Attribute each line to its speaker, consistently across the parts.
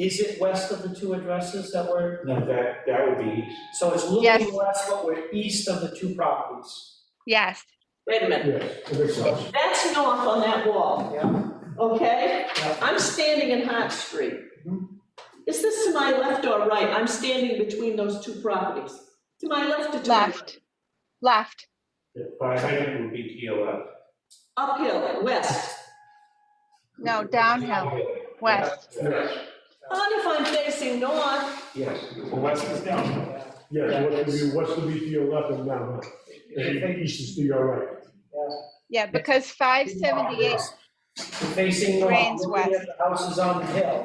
Speaker 1: Is it west of the two addresses that were,
Speaker 2: No, that, that would be east.
Speaker 1: so it's
Speaker 3: Yes.
Speaker 1: looking west, but we're east of the two properties?
Speaker 3: Yes,
Speaker 4: Wait a minute,
Speaker 2: Yes, it makes sense.
Speaker 4: that's north on that wall,
Speaker 1: Yeah,
Speaker 4: okay?
Speaker 1: Yeah. Mm-hmm.
Speaker 4: I'm standing in Hart Street. Is this to my left or right? I'm standing between those two properties. To my left or to my right?
Speaker 3: left, left,
Speaker 2: By hydrant would be to your left.
Speaker 4: Uphill, west.
Speaker 3: no, downhill, west.
Speaker 2: Yes,
Speaker 4: On if I'm facing north,
Speaker 2: yes.
Speaker 5: Well, what's this down?
Speaker 6: Yes, what's the view, what's the view to your left and down, and east is to your right.
Speaker 3: Yeah, because five seventy-eight,
Speaker 1: We're Facing north,
Speaker 3: Drains
Speaker 1: looking at
Speaker 3: west.
Speaker 1: the houses on the hill.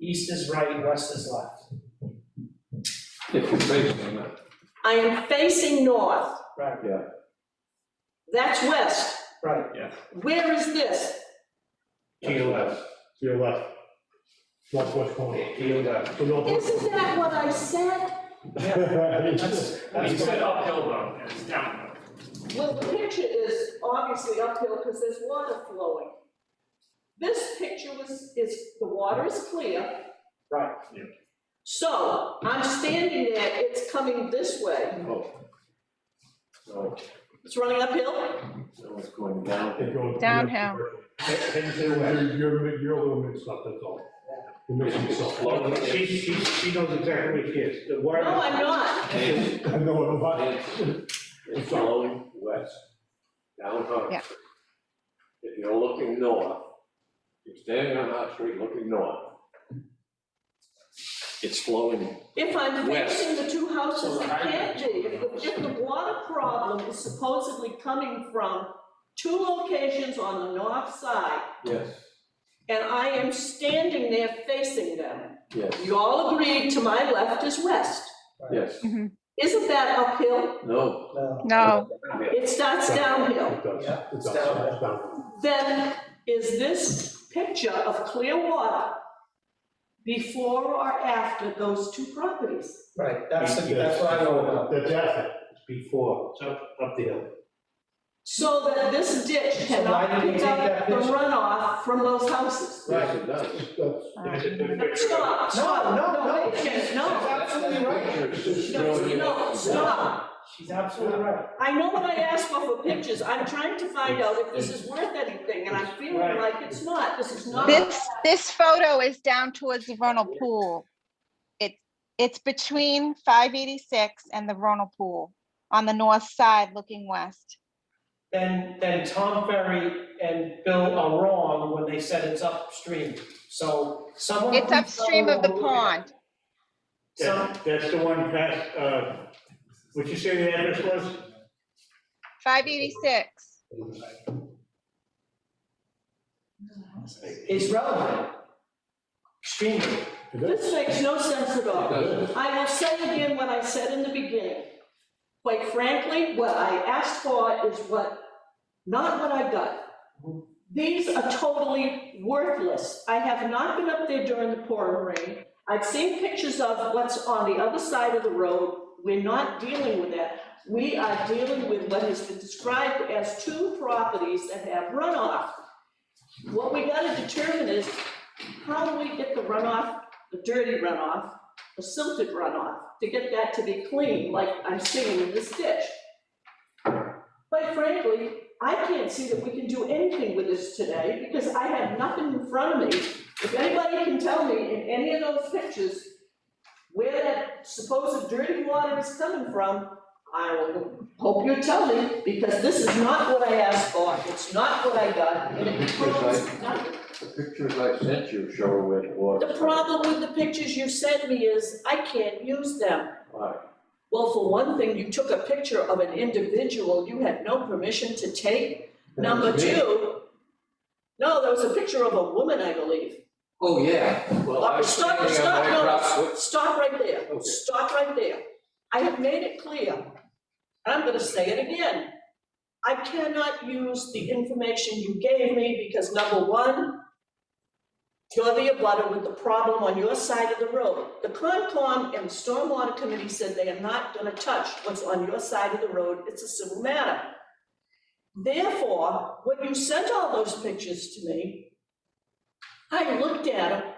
Speaker 1: East is right, west is left,
Speaker 7: If you're facing them,
Speaker 4: I am facing north.
Speaker 1: right,
Speaker 4: That's west.
Speaker 1: right.
Speaker 4: Where is this?
Speaker 2: To your left,
Speaker 6: To your left. Northwest corner.
Speaker 2: to your left.
Speaker 6: So northwest.
Speaker 4: Isn't that what I said?
Speaker 1: That's,
Speaker 5: You
Speaker 1: that's
Speaker 5: said
Speaker 1: right.
Speaker 5: uphill though, and it's downhill.
Speaker 4: Well, the picture is obviously uphill because there's water flowing. This picture was, is, the water is clear.
Speaker 1: Right.
Speaker 5: Yeah.
Speaker 4: So I'm standing there, it's coming this way.
Speaker 7: oh. No,
Speaker 4: It's running uphill?
Speaker 7: no, it's going down.
Speaker 6: It goes-
Speaker 3: Downhill.
Speaker 6: You're, you're, you're a little mixed up, that's all. You're mixing yourself up.
Speaker 7: Lower
Speaker 2: She,
Speaker 7: it.
Speaker 2: she, she knows exactly where she is. The
Speaker 4: No,
Speaker 2: water.
Speaker 4: I'm not.
Speaker 7: It's
Speaker 6: I know, what I'm about.
Speaker 7: it's flowing west, down Hart
Speaker 3: Yeah.
Speaker 7: Street. If you're looking north, you're standing on Hart Street looking north. It's flowing,
Speaker 4: If I'm
Speaker 7: West.
Speaker 4: facing the two houses, it
Speaker 5: Right.
Speaker 4: can't be. If the, if the water problem is supposedly coming from two locations on the north side,
Speaker 7: yes,
Speaker 4: and I am standing there facing them.
Speaker 7: yes,
Speaker 4: You all agreed to my left is west.
Speaker 7: yes,
Speaker 4: Isn't that uphill?
Speaker 7: no,
Speaker 1: No,
Speaker 3: no,
Speaker 4: It starts downhill.
Speaker 6: It does,
Speaker 1: Yeah,
Speaker 6: it
Speaker 1: it's
Speaker 6: does,
Speaker 1: downhill.
Speaker 6: it's downhill.
Speaker 4: Then is this picture of clear water before or after those two properties?
Speaker 1: right, that's, the- that's what I know about.
Speaker 6: That's after.
Speaker 2: It's Before, it's up, up the hill.
Speaker 4: So that this ditch
Speaker 1: So why
Speaker 4: cannot
Speaker 1: did they
Speaker 4: pick
Speaker 1: take
Speaker 4: up
Speaker 1: that
Speaker 4: the
Speaker 1: picture?
Speaker 4: runoff from those houses.
Speaker 7: yes, it does.
Speaker 6: That's-
Speaker 2: It's a good picture.
Speaker 4: Stop, stop, no, wait a minute, no,
Speaker 1: absolutely
Speaker 4: no, no, stop.
Speaker 1: She's absolutely right.
Speaker 4: I know what I asked for for pictures, I'm trying to find out if this is worth anything, and I'm feeling
Speaker 1: Right.
Speaker 4: like it's not, this is not.
Speaker 3: this, this photo is down towards the vernal pool. It, it's between five eighty-six and the vernal pool, on the north side looking west.
Speaker 1: Then, then Tom Ferry and Bill are wrong when they said it's upstream. So someone.
Speaker 3: It's
Speaker 1: who-
Speaker 3: upstream of the pond,
Speaker 1: Some,
Speaker 2: That- That's the one past, uh, what'd you say the address was?
Speaker 3: five eighty-six.
Speaker 1: it's relevant. Extremely.
Speaker 6: it does.
Speaker 4: This makes no sense at
Speaker 7: It
Speaker 4: all.
Speaker 7: does.
Speaker 4: I will say again what I said in the beginning. Quite frankly, what I asked for is what, not what I got. These are totally worthless. I have not been up there during the pouring rain. I've seen pictures of what's on the other side of the road. We're not dealing with that. We are dealing with what has been described as two properties that have runoff. What we gotta determine is, how do we get the runoff, the dirty runoff, the silted runoff, to get that to be clean, like I'm seeing in this ditch. Quite frankly, I can't see that we can do anything with this today, because I have nothing in front of me. If anybody can tell me in any of those pictures where that supposed dirty water is coming from, I will hope you tell me, because this is not what I asked for, it's not what I got, and it proves nothing.
Speaker 7: The pictures I sent you show where it was.
Speaker 4: The problem with the pictures you sent me is I can't use them.
Speaker 7: Why?
Speaker 4: Well, for one thing, you took a picture of an individual you had no permission to take. Number
Speaker 7: That's me.
Speaker 4: two, no, there was a picture of a woman, I believe.
Speaker 7: Oh, yeah. Well, I was
Speaker 4: Stop,
Speaker 7: standing on
Speaker 4: stop,
Speaker 7: my prop-
Speaker 4: no, stop right there,
Speaker 7: Okay.
Speaker 4: stop right there. I have made it clear, and I'm gonna say it again. I cannot use the information you gave me because number one, you're the abutter with the problem on your side of the road. The Concom and the Stormwater Committee said they are not gonna touch what's on your side of the road, it's a civil matter. Therefore, when you sent all those pictures to me, I looked at them